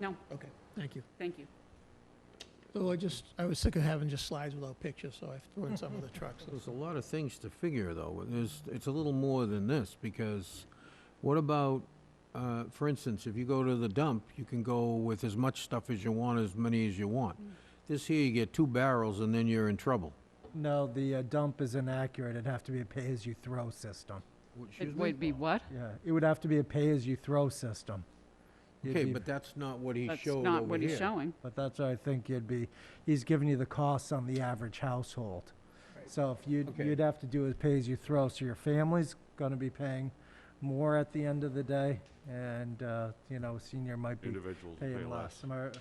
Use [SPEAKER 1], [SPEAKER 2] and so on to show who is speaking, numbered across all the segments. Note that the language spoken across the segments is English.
[SPEAKER 1] No,
[SPEAKER 2] Okay, thank you.
[SPEAKER 1] thank you.
[SPEAKER 2] So I just, I was sick of having just slides without pictures, so I threw in some of the trucks.
[SPEAKER 3] There's a lot of things to figure, though. There's, it's a little more than this, because what about, uh, for instance, if you go to the dump, you can go with as much stuff as you want, as many as you want. This here, you get two barrels, and then you're in trouble.
[SPEAKER 4] No, the uh, dump is inaccurate. It'd have to be a pay-as-you-throw system.
[SPEAKER 3] What- excuse
[SPEAKER 1] It
[SPEAKER 3] me?
[SPEAKER 1] would be what?
[SPEAKER 4] Yeah, it would have to be a pay-as-you-throw system. You'd
[SPEAKER 3] Okay,
[SPEAKER 4] be-
[SPEAKER 3] but that's not what he
[SPEAKER 1] That's
[SPEAKER 3] showed
[SPEAKER 1] not
[SPEAKER 3] over
[SPEAKER 1] what he's
[SPEAKER 3] here.
[SPEAKER 1] showing.
[SPEAKER 4] But that's what I think you'd be, he's giving you the costs on the average household. So if you'd,
[SPEAKER 3] Okay.
[SPEAKER 4] you'd have to do is pay-as-you-throw, so your family's gonna be paying more at the end of the day, and, uh, you know, senior might be
[SPEAKER 5] individuals pay
[SPEAKER 4] paying less.
[SPEAKER 5] less.
[SPEAKER 4] Am I, is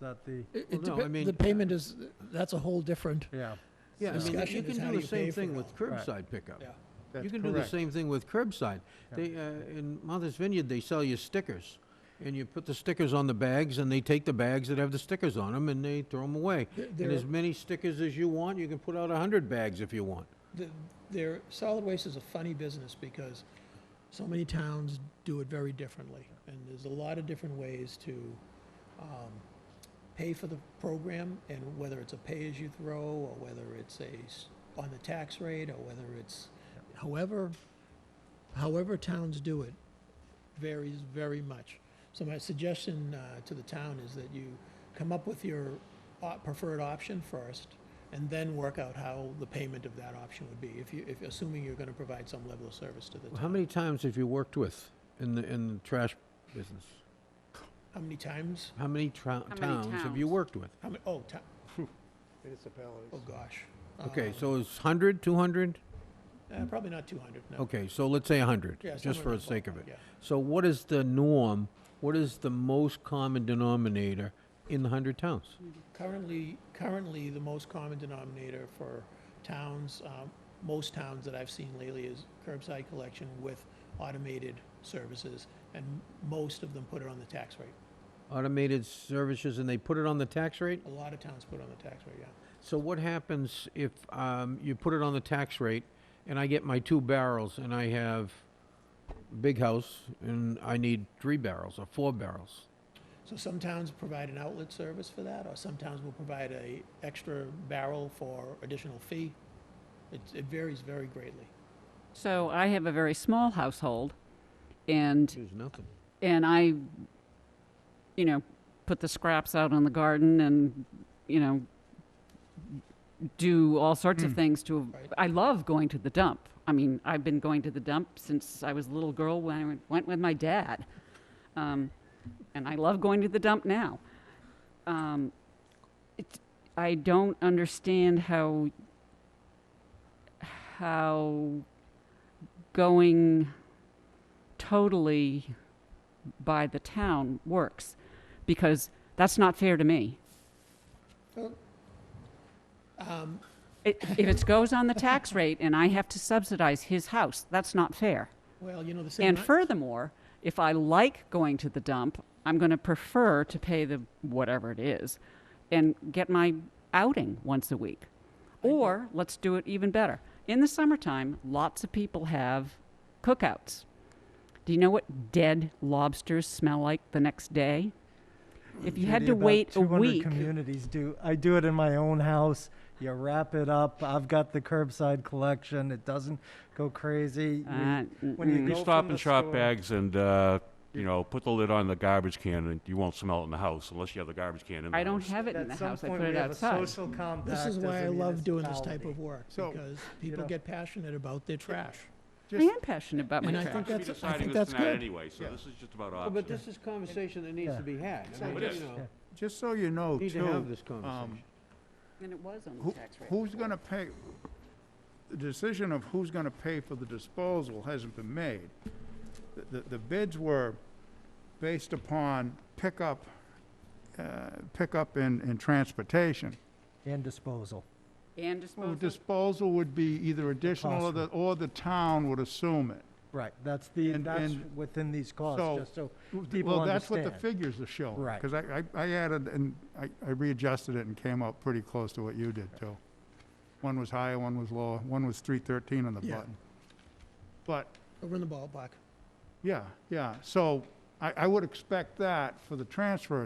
[SPEAKER 4] that the,
[SPEAKER 2] It-
[SPEAKER 3] Well,
[SPEAKER 2] it
[SPEAKER 3] no, I
[SPEAKER 2] depe-
[SPEAKER 3] mean-
[SPEAKER 2] The payment is, that's a whole different,
[SPEAKER 4] yeah.
[SPEAKER 3] Yeah, I mean,
[SPEAKER 4] So-
[SPEAKER 3] you
[SPEAKER 2] Discussion is
[SPEAKER 3] can
[SPEAKER 2] how
[SPEAKER 3] do
[SPEAKER 2] you
[SPEAKER 3] the
[SPEAKER 2] pay
[SPEAKER 3] same
[SPEAKER 2] for
[SPEAKER 3] thing
[SPEAKER 2] it
[SPEAKER 3] with
[SPEAKER 2] all.
[SPEAKER 4] Right.
[SPEAKER 3] curbside pickup.
[SPEAKER 2] yeah.
[SPEAKER 3] You can do the same thing with curbside. They, uh, in Mother's Vineyard, they sell you stickers, and you put the stickers on the bags, and they take the bags that have the stickers on them, and they throw them away.
[SPEAKER 2] Th-
[SPEAKER 3] And
[SPEAKER 2] There,
[SPEAKER 3] as many stickers as you want, you can put out a hundred bags if you want.
[SPEAKER 2] the- there, solid waste is a funny business because so many towns do it very differently. And there's a lot of different ways to, um, pay for the program and whether it's a pay-as-you-throw or whether it's a, s- on the tax rate or whether it's, however, however towns do it varies very much. So my suggestion uh, to the town is that you come up with your op- preferred option first and then work out how the payment of that option would be, if you, if, assuming you're gonna provide some level of service to the town.
[SPEAKER 3] How many times have you worked with in the, in the trash business?
[SPEAKER 2] How many times?
[SPEAKER 3] How many tra-
[SPEAKER 1] many
[SPEAKER 3] towns have you
[SPEAKER 1] towns?
[SPEAKER 3] worked with?
[SPEAKER 2] How many, oh, ti- oh,
[SPEAKER 6] municipalities.
[SPEAKER 2] gosh.
[SPEAKER 3] Okay,
[SPEAKER 2] Um,
[SPEAKER 3] so it's hundred, two hundred?
[SPEAKER 2] uh, Probably not two hundred, no.
[SPEAKER 3] Okay, so let's say a hundred,
[SPEAKER 2] Yeah,
[SPEAKER 3] just
[SPEAKER 2] somewhere
[SPEAKER 3] for
[SPEAKER 2] in
[SPEAKER 3] the
[SPEAKER 2] that
[SPEAKER 3] sake of
[SPEAKER 2] ballpark,
[SPEAKER 3] it.
[SPEAKER 2] yeah.
[SPEAKER 3] So what is the norm? What is the most common denominator in the hundred towns?
[SPEAKER 2] Currently, currently, the most common denominator for towns, um, most towns that I've seen lately is curbside collection with automated services, and most of them put it on the tax rate.
[SPEAKER 3] Automated services, and they put it on the tax rate?
[SPEAKER 2] A lot of towns put it on the tax rate, yeah.
[SPEAKER 3] So what happens if um, you put it on the tax rate, and I get my two barrels, and I have big house, and I need three barrels or four barrels?
[SPEAKER 2] So some towns provide an outlet service for that, or some towns will provide a extra barrel for additional fee. It, it varies very greatly.
[SPEAKER 1] So I have a very small household, and,
[SPEAKER 3] There's nothing.
[SPEAKER 1] and I, you know, put the scraps out on the garden and, you know, do all sorts of things to,
[SPEAKER 2] Right.
[SPEAKER 1] I love going to the dump. I mean, I've been going to the dump since I was a little girl when I went- went with my dad. Um, and I love going to the dump now. Um, it, I don't understand how how going totally by the town works because that's not fair to me.
[SPEAKER 2] Um,
[SPEAKER 1] It, if it goes on the tax rate and I have to subsidize his house, that's not fair.
[SPEAKER 2] well, you know, the same.
[SPEAKER 1] And furthermore, if I like going to the dump, I'm going to prefer to pay the whatever it is and get my outing once a week. Or let's do it even better. In the summertime, lots of people have cookouts. Do you know what dead lobsters smell like the next day? If you had
[SPEAKER 4] Judy,
[SPEAKER 1] to
[SPEAKER 4] about
[SPEAKER 1] wait a
[SPEAKER 4] 200
[SPEAKER 1] week,
[SPEAKER 4] Communities do. I do it in my own house. You wrap it up. I've got the curbside collection. It doesn't go crazy. You-
[SPEAKER 1] uh,
[SPEAKER 4] when you
[SPEAKER 1] mm-mm.
[SPEAKER 4] go
[SPEAKER 5] You stop
[SPEAKER 4] from
[SPEAKER 5] and
[SPEAKER 4] the
[SPEAKER 5] shop
[SPEAKER 4] store-
[SPEAKER 5] bags and, uh, you know, put the lid on the garbage can and you won't smell it in the house unless you have the garbage can in the house.
[SPEAKER 1] I don't have it in
[SPEAKER 4] At
[SPEAKER 1] the
[SPEAKER 4] some
[SPEAKER 1] house. I
[SPEAKER 4] point,
[SPEAKER 1] put it
[SPEAKER 4] we have a
[SPEAKER 1] outside.
[SPEAKER 4] social compact
[SPEAKER 2] This is
[SPEAKER 4] as
[SPEAKER 2] why
[SPEAKER 4] a
[SPEAKER 2] I love doing this type of
[SPEAKER 4] municipality.
[SPEAKER 2] work,
[SPEAKER 6] So,
[SPEAKER 2] because people
[SPEAKER 4] know-
[SPEAKER 2] get passionate about their trash.
[SPEAKER 1] I am passionate about my
[SPEAKER 2] And I
[SPEAKER 1] trash.
[SPEAKER 2] think
[SPEAKER 5] We're
[SPEAKER 2] that's, I
[SPEAKER 5] deciding
[SPEAKER 2] think
[SPEAKER 5] this
[SPEAKER 2] that's
[SPEAKER 5] tonight
[SPEAKER 2] good.
[SPEAKER 5] anyway, so
[SPEAKER 6] Yeah.
[SPEAKER 5] this is just about
[SPEAKER 3] But
[SPEAKER 5] options.
[SPEAKER 3] this is conversation that needs
[SPEAKER 4] Yeah.
[SPEAKER 3] to be had.
[SPEAKER 6] So
[SPEAKER 3] I mean,
[SPEAKER 5] it
[SPEAKER 3] you
[SPEAKER 5] is. um,
[SPEAKER 3] know,
[SPEAKER 6] Just so you know,
[SPEAKER 3] Need to have
[SPEAKER 6] too, um,
[SPEAKER 3] this conversation.
[SPEAKER 1] And it was on the
[SPEAKER 6] who,
[SPEAKER 1] tax rate.
[SPEAKER 6] who's gonna pay? The decision of who's gonna pay for the disposal hasn't been made. The- The, the bids were based upon pickup, uh, pickup and, and transportation.
[SPEAKER 4] And disposal.
[SPEAKER 1] And
[SPEAKER 6] Well,
[SPEAKER 1] disposal.
[SPEAKER 6] disposal would be either additional or
[SPEAKER 4] cost
[SPEAKER 6] the, or the town would assume it.
[SPEAKER 4] Right. That's the
[SPEAKER 6] And-
[SPEAKER 4] that's
[SPEAKER 6] and
[SPEAKER 4] within these costs.
[SPEAKER 6] so-
[SPEAKER 4] just so people
[SPEAKER 6] Well, that's what the
[SPEAKER 4] understand.
[SPEAKER 6] figures are showing.
[SPEAKER 4] Right.
[SPEAKER 6] Because I, I- I added, and I I readjusted it and came up pretty close to what you did, too. One was higher, one was lower, one was 313 on the
[SPEAKER 2] Yeah.
[SPEAKER 6] button. But,
[SPEAKER 2] Over in the ballpark.
[SPEAKER 6] yeah, yeah, so I I, I would expect that for the transfer